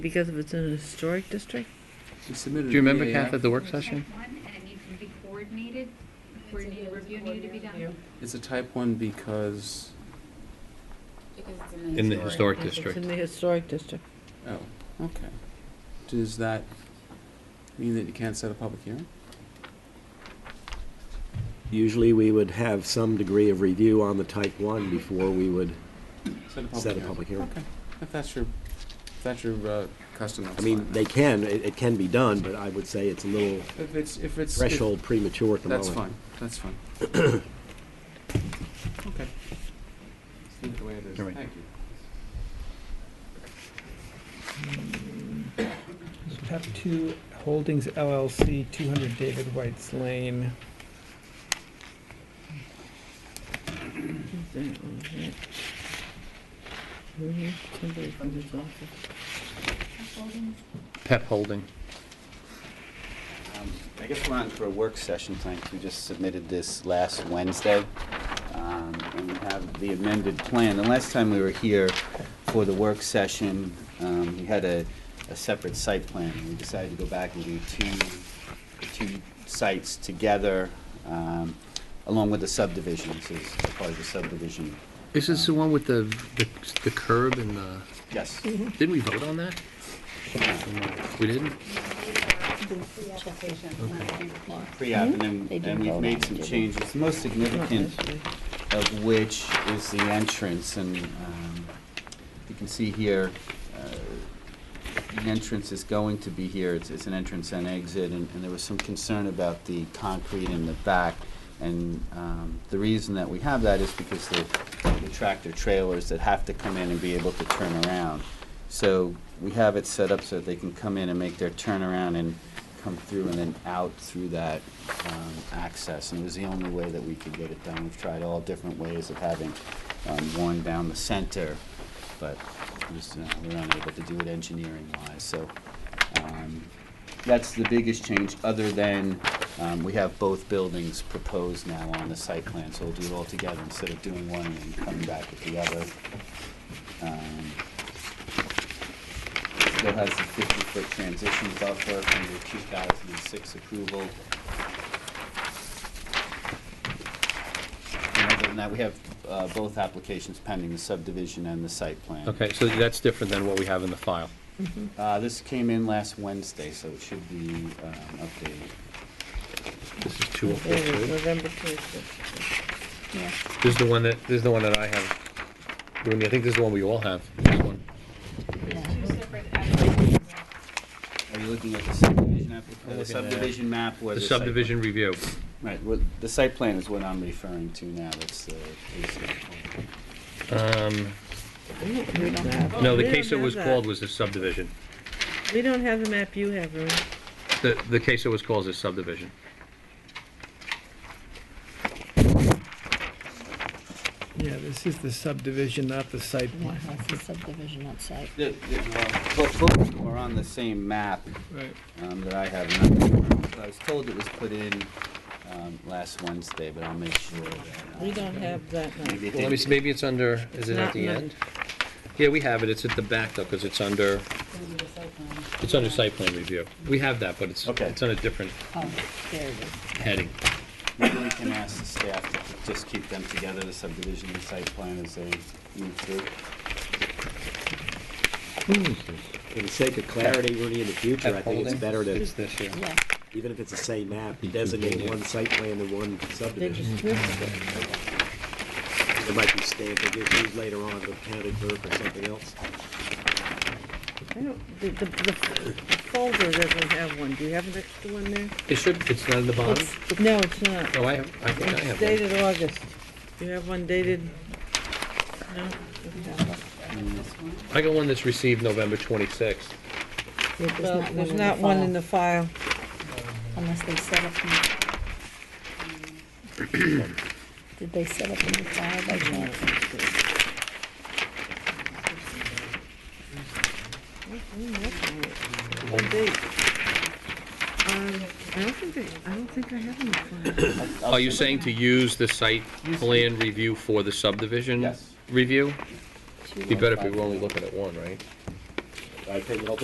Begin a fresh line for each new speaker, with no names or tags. Because if it's in a historic district?
She submitted.
Do you remember,
a
Kath,
PAF.
at the work session?
Type one, and it needs to be coordinated, coordinated review needed to be done.
It's a type one because,
Because it's
In the historic
It's in
district.
the historic district.
oh, okay. Does that mean that you can't set a public hearing?
Usually, we would have some degree of review on the type one before we would set a public hearing.
Okay, if that's your, if that's your uh, custom, that's
I
fine.
mean, they can, it, it can be done, but I would say it's a little
If it's, if it's. if-
threshold premature at the moment.
That's fine, that's fine. Okay. Just leave it the way it is,
All right.
thank you.
PEP 2 Holdings LLC, 200 David White's Lane.
Is there- oh, is that- Mhm, somebody from this office.
Holdings,
Pep Holding.
Um, I guess we're on for a work session tonight. We just submitted this last Wednesday. Um, And we have the amended plan. The last time we were here for the work session, um, we had a, a separate site plan. We decided to go back and do two, two sites together, um, along with the subdivisions, as part of the subdivision.
Is this the one with the, the- the curb and the,
Yes.
Mm-hmm.
didn't we vote on that? We didn't?
Pre-application, not pre-plot.
Pre-app, and then,
Mm-hmm. They didn't
and we've
vote on
made
it,
some
did they?
changes. The most
Not
significant
this way.
of which is the entrance, and um, you can see here, uh, the entrance is going to be here, it's, it's an entrance and exit, and, and there was some concern about the concrete in the back, and um, the reason that we have that is because the the tractor trailers that have to come in and be able to turn around. So we have it set up so that they can come in and make their turnaround and come through and then out through that um, access. And it was the only way that we could get it done. We've tried all different ways of having um, one down the center, but just, uh, we're unable to do it engineering-wise. So um, that's the biggest change, other than um, we have both buildings proposed now on the site plan. So we'll do it all together instead of doing one and then coming back with the other. Um, Still has the fifty-foot transition buffer from the two thousand and six approval. And other than that, we have uh, both applications pending, the subdivision and the site plan.
Okay, so that's different than what we have in the file.
Uh, This came in last Wednesday, so it should be um, updated.
This is two oh four
There it is,
two.
November 26th.
This is the one that, this is the one that I have. Rooney, I think this is the one we all have, this one.
two separate applications.
Are you looking at the subdivision
I'm
application? The
looking at-
subdivision map or
The
the site? plan?
subdivision review.
Right, well, the site plan is what I'm referring to now, that's the.
Um,
We don't have that.
no,
We
the
don't
case it
have
was
that.
called was the subdivision.
We don't have the map you have, Rooney.
The, the case it was called is subdivision.
Yeah, this is the subdivision, not the site
Yeah,
plan.
that's the subdivision outside.
The- the- well, Both both of them are on the same map
Right.
um, that I have. not- I was told it was put in um, last Wednesday, but I'll make sure that. uh,
We don't have that map.
maybe it
Well, let me,
didn't-
see, maybe it's under, is it at
Not
the
in the-
end? Yeah, we have it, it's at the back though, because it's under, it's under site plan review. We have that, but it's,
Okay.
it's on a different
Oh, there it is.
heading.
Maybe we can ask the staff to just keep them together, the subdivision and site plan as they move through.
For the sake of clarity, Rooney, in the future, I think it's better to,
It's this year.
Yeah,
even if it's the same map, designate one site plan and one
They
subdivision.
Mm-hmm.
just missed it.
There might be stamping issues later on, the county clerk or something else.
I don't, the, the the folder doesn't have one. Do you have an extra one there?
It should, it's not in the bottom?
No, it's not.
No, I have, I think I
It's
have one.
dated August. You have one dated? No?
I got one that's received November twenty-sixth.
Yeah, there's
Well,
not one
there's
in the
not one in
file,
the file.
Unless they set up. in- um, Did they set up in the file by chance?
What date? Um, I don't think they, I don't think I have any file.
I'll
Are Oh, you saying
send-
to use the site plan review for the subdivision?
Yes.
Review?
Two
Be better if we were only looking at one, right?
I think,